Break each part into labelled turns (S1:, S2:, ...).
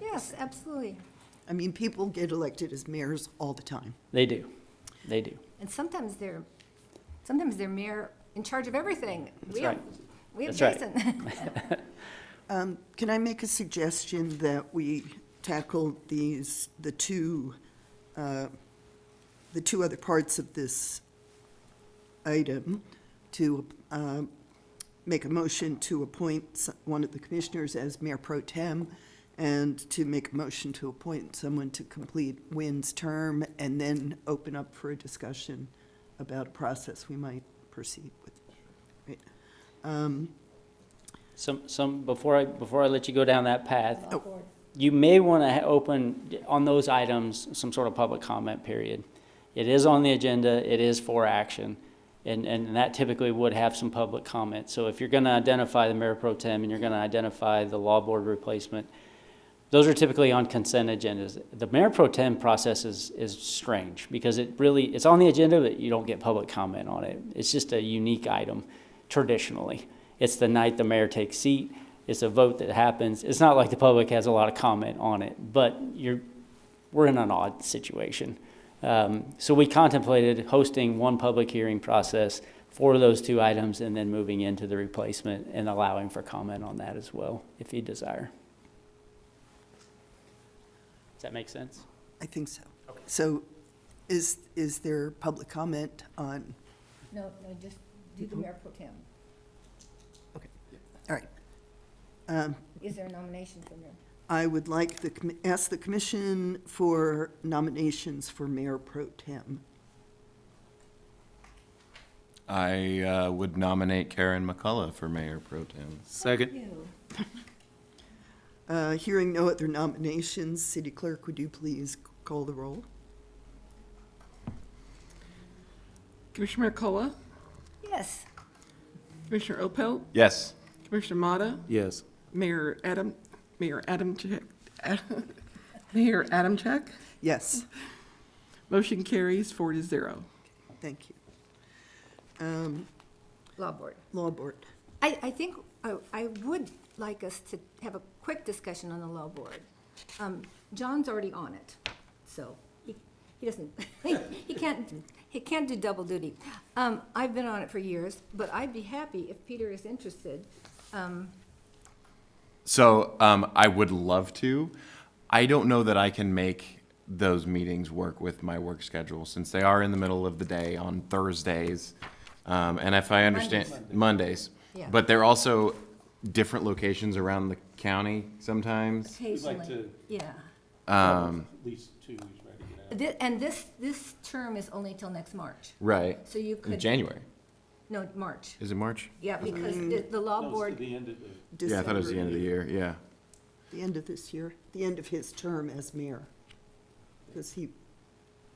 S1: Yes, absolutely.
S2: I mean, people get elected as mayors all the time.
S3: They do. They do.
S1: And sometimes they're, sometimes they're mayor in charge of everything. We have-
S3: right.
S1: We have
S3: That's
S1: Jason.
S3: right.
S2: Um, Can I make a suggestion that we tackle these, the two, uh, the two other parts of this item to um, make a motion to appoint s- one of the commissioners as mayor pro tem and to make a motion to appoint someone to complete Wynn's term and then open up for a discussion about a process we might proceed with. Right. Um,
S3: Some, some, before I, before I let you go down that path,
S2: Oh.
S3: you may want to open, on those items, some sort of public comment period. It is on the agenda, it is for action, and, and that typically would have some public comment. So if you're going to identify the mayor pro tem and you're going to identify the law board replacement, those are typically on consent agendas. The mayor pro tem process is, is strange because it really, it's on the agenda, but you don't get public comment on it. It's just a unique item traditionally. It's the night the mayor takes seat. It's a vote that happens. It's not like the public has a lot of comment on it, but you're, we're in an odd situation. Um, so we contemplated hosting one public hearing process for those two items and then moving into the replacement and allowing for comment on that as well, if you desire. Does that make sense?
S2: I think so. So is, is there public comment on,
S1: No, no, just do the mayor pro tem.
S2: all right. Um,
S1: Is there a nomination for mayor?
S2: I would like the, commi- ask the commission for nominations for mayor pro tem.
S4: I uh, would nominate Karen McCullough for mayor pro tem.
S5: Second.
S1: You.
S2: Uh, Hearing no other nominations, city clerk, would you please call the roll?
S6: Commissioner Mercola,
S1: Yes,
S6: Commissioner Opel,
S4: Yes.
S6: Commissioner Mata,
S5: Yes.
S6: Mayor Adam, Mayor Adam Check, Mayor Adam Check.
S2: Yes,
S6: Motion carries four to zero.
S2: thank you. Um,
S1: law board.
S2: Law board,
S1: I, I think, I, I would like us to have a quick discussion on the law board. Um, John's already on it, so he, he doesn't, he can't, he can't do double duty. Um, I've been on it for years, but I'd be happy if Peter is interested.
S4: So um, I would love to. I don't know that I can make those meetings work with my work schedule since they are in the middle of the day on Thursdays. Um, and if I understand Mondays,
S1: Yeah.
S4: but they're also different locations around the county sometimes.
S1: We'd
S7: like to-
S1: Yeah.
S7: Oh,
S5: Um,
S7: At least two weeks, right, to get out.
S1: Thi- And this, this term is only till next March.
S4: Right.
S1: So you
S4: In
S1: could,
S4: January.
S1: no, March.
S4: Is it March?
S1: Yeah, because the, the law
S7: No, it's to
S1: board,
S7: the end of the.
S2: December.
S4: Yeah, I thought it was the end of the year. Yeah.
S2: The end of this year, the end of his term as mayor. Because he,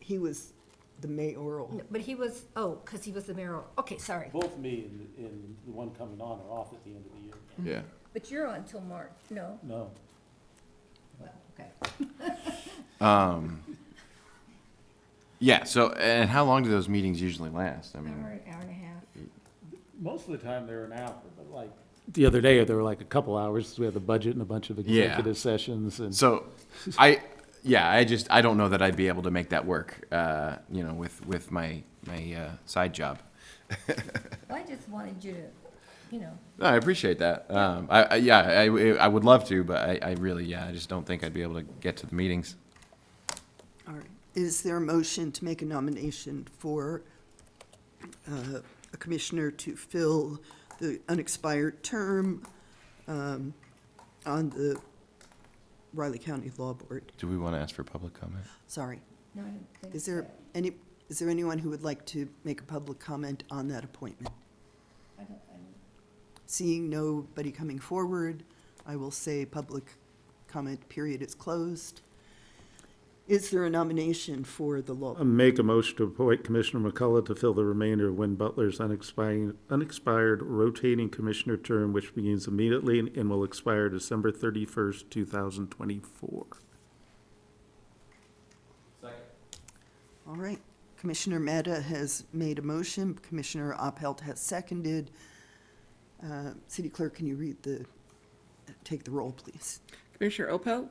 S2: he was the mayoral.
S1: but he was, oh, because he was the mayor. Okay, sorry.
S7: Both me and, and the one coming on are off at the end of the year.
S4: Yeah.
S1: But you're on till March, no?
S7: No.
S1: Well, okay.
S4: Um, Yeah. So, and how long do those meetings usually last? I mean,
S1: Hour, hour and a half.
S7: Most of the time they're an hour, but like,
S5: The other day, there were like a couple hours, we had the budget and a bunch of
S4: Yeah.
S5: executive sessions and.
S4: So, I, yeah, I just, I don't know that I'd be able to make that work, uh, you know, with, with my, my, uh, side job.
S1: Well, I just wanted you to, you know,
S4: No, I appreciate that. Um, I, I, yeah, I, I would love to, but I, I really, yeah, I just don't think I'd be able to get to the meetings.
S2: All right. Is there a motion to make a nomination for uh, a commissioner to fill the unexpired term um, on the Riley County Law Board?
S4: Do we want to ask for public comment?
S2: Sorry.
S1: no, I don't think.
S2: Is there
S1: so.
S2: any, is there anyone who would like to make a public comment on that appointment?
S1: I don't, I don't-
S2: Seeing nobody coming forward, I will say public comment period is closed. Is there a nomination for the law?
S5: Make a motion to appoint Commissioner McCullough to fill the remainder of Win Butler's unexpired, unexpired rotating commissioner term, which begins immediately and will expire December thirty-first, two thousand twenty-four.
S2: All right. Commissioner Meta has made a motion. Commissioner Opelt has seconded. Uh, City Clerk, can you read the, take the roll, please?
S6: Commissioner Opel,